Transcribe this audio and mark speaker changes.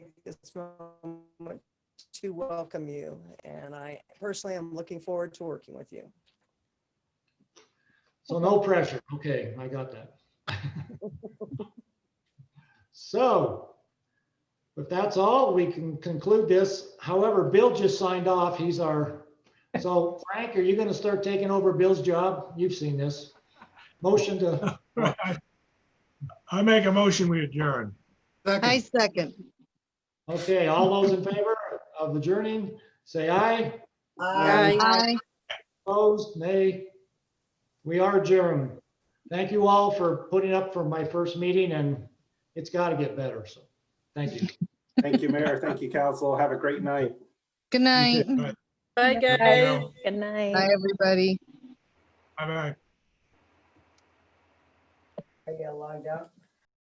Speaker 1: so much to welcome you. And I personally am looking forward to working with you.
Speaker 2: So no pressure. Okay, I got that. So if that's all, we can conclude this. However, Bill just signed off. He's our, so Frank, are you going to start taking over Bill's job? You've seen this. Motion to,
Speaker 3: I I make a motion, we adjourn.
Speaker 4: I second.
Speaker 2: okay, all those in favor of adjourning, say aye.
Speaker 4: Aye.
Speaker 2: Opposed, nay. We are adjourned. Thank you all for putting up for my first meeting and it's got to get better. So thank you.
Speaker 5: Thank you, Mayor. Thank you, council. Have a great night.
Speaker 4: Good night.
Speaker 6: Bye, guys.
Speaker 3: Bye,
Speaker 7: Good night.
Speaker 4: Bye, everybody.
Speaker 3: bye.
Speaker 1: I get logged out.